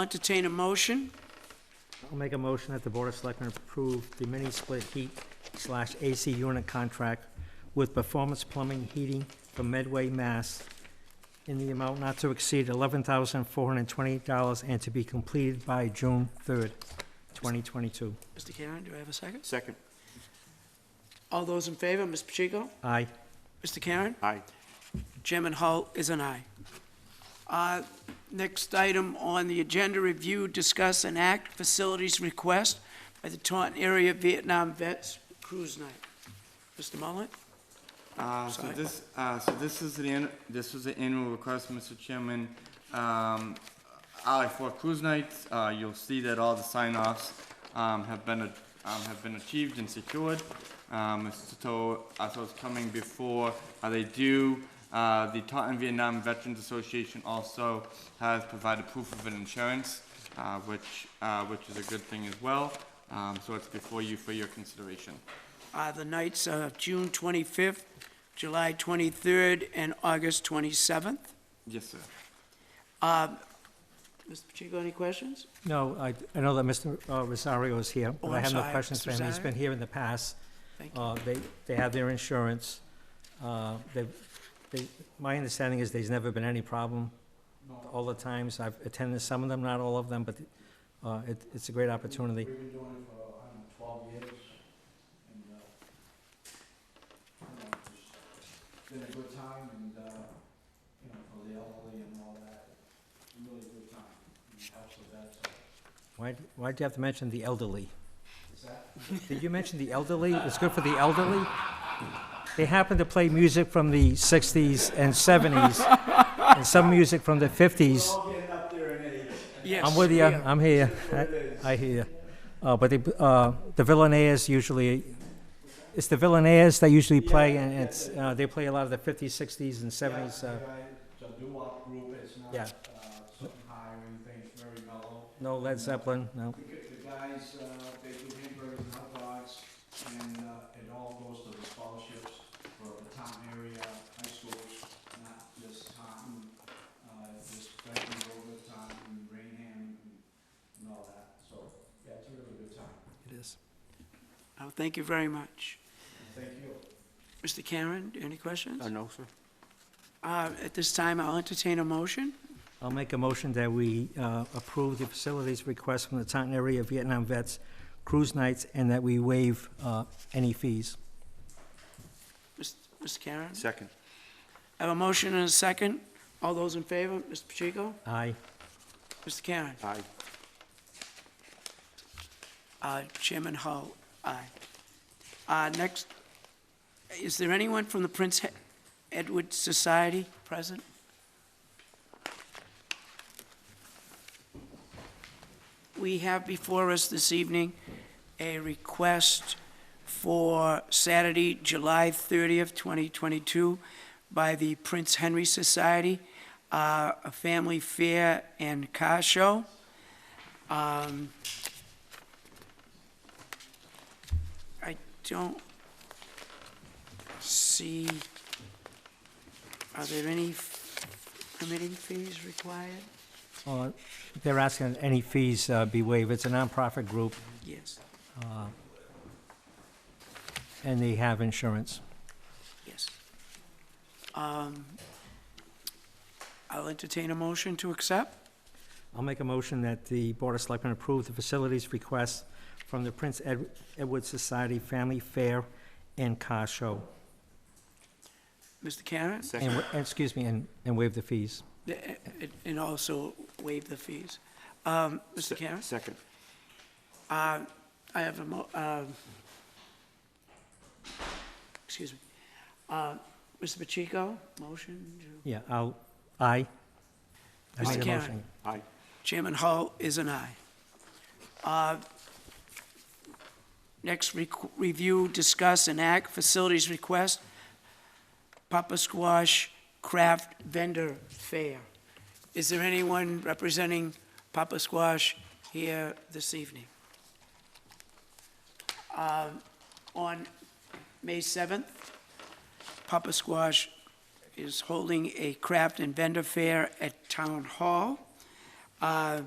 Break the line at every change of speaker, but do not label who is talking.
Entertain a motion.
I'll make a motion that the Board of Selectmen approve the mini-split heat slash AC unit contract with Performance Plumbing Heating for Medway, Mass. in the amount not to exceed eleven thousand four hundred and twenty dollars and to be completed by June third, twenty twenty-two.
Mr. Karen, do I have a second?
Second.
All those in favor, Ms. Pacheco?
Aye.
Mr. Karen?
Aye.
Chairman Hull is an aye. Uh, Next item on the agenda, review, discuss, and act facilities request by the Taunton Area Vietnam Vets Cruise Night. Mr. Mullin?
Uh, So
Sorry.
this, uh, so this is an, an- this was an annual request, Mr. Chairman. Um, I for cruise nights, uh, you'll see that all the sign-offs, um, have been, a- um, have been achieved and secured. Um, so, uh, so it's coming before, uh, they do, uh, the Taunton Vietnam Veterans Association also has provided proof of an insurance, uh, which, uh, which is a good thing as well. Um, so it's before you for your consideration.
Uh, The nights are June 25th, July 23rd, and August 27th.
Yes, sir.
Mr. Pacheco, any questions?
No, I, I know that Mr. uh, Rosario is here,
Oh,
but I
I'm
have no
sorry,
questions for
Mr.
him. He's
Rosario.
been here in the past.
Thank you.
Uh, they, they have their insurance. Uh, they, they, my understanding is there's never been any problem. All the times I've attended some of them, not all of them, but, uh, it, it's a great opportunity.
We've been doing it for, I don't know, twelve years, and, uh, you know, it's been a good time, and, uh, you know, for the elderly and all that, it's a really good time, and it helps with that, so,
Why, why'd you have to mention the elderly?
is that,
Did you mention the elderly? It's good for the elderly? They happen to play music from the sixties and seventies, and some music from the fifties.
all getting up there in age,
Yes.
I'm with you,
yeah.
I'm here, I- I hear you. Uh, but the, uh, the Villanayas usually, it's the Villanayas that usually play, and it's, uh, they play a lot of the fifties, sixties, and seventies, uh,
yeah, it's a doo-wop group, it's not,
Yeah.
uh, something high or anything, it's very mellow.
no Led Zeppelin, no.
The gu- the guys, uh, they do hamburgers and hot dogs, and uh, it all goes to the scholarships for the town area high schools, not just Taunton, uh, just Franklin Grove, Taunton, Rainham, and all that. So, yeah, it's a really good time.
It is.
Oh, Thank you very much.
Thank you.
Mr. Karen, any questions?
Uh, no, sir.
Uh, At this time, I'll entertain a motion.
I'll make a motion that we, uh, approve the facilities request from the Taunton Area Vietnam Vets Cruise Nights, and that we waive, uh, any fees.
Mr. Mr. Karen?
Second.
I have a motion and a second. All those in favor, Mr. Pacheco?
Aye.
Mr. Karen?
Aye.
Uh, Chairman Hull, aye. Uh, next, is there anyone from the Prince Ed- Edward Society present? We have before us this evening a request for Saturday, July 30th, 2022, by the Prince Henry Society, uh, a family fair and car show. Um, I don't see, are there any f- permitting fees required?
Uh, they're asking any fees, uh, be waived. It's a nonprofit group,
Yes,
and they have insurance.
yes. Um, I'll entertain a motion to accept.
I'll make a motion that the Board of Selectmen approve the facilities request from the Prince Ed- Edward Society Family Fair and Car Show.
Mr. Karen,
And,
Second.
wa- and- excuse me, and, and waive the fees.
th- eh, and also waive the fees. Um, Mr. Karen?
Second.
Uh, I have a mo, um, excuse me. Uh, Mr. Pacheco, motion to?
Yeah, I'll, aye. I
Mr.
made a
Karen.
motion.
Aye.
Chairman Hull is an aye. Uh, Next, requ- review, discuss, and act facilities request, Papa Squash Craft Vendor Fair. Is there anyone representing Papa Squash here this evening? Um, On May 7th, Papa Squash is holding a craft and vendor fair at Town Hall. Uh,